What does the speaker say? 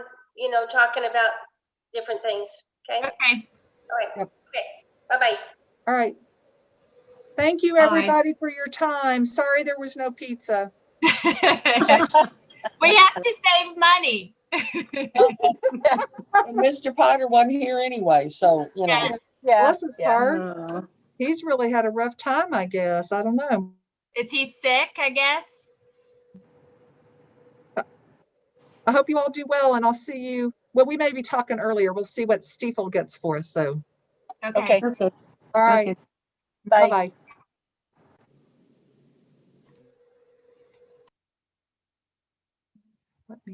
you know, talking about different things, okay? Okay. All right, Yep. okay, bye-bye. All right. Thank you, Bye. everybody, for your time. Sorry there was no pizza. We have to save money. And Mr. Potter wasn't here anyway, so, you know, Yes, Yeah. Bless his yeah. heart. He's really had a rough time, I guess. I don't know. Is he sick, I guess? I hope you all do well and I'll see you. Well, we may be talking earlier. We'll see what Steeple gets for us. So, Okay, all right. bye. Bye-bye.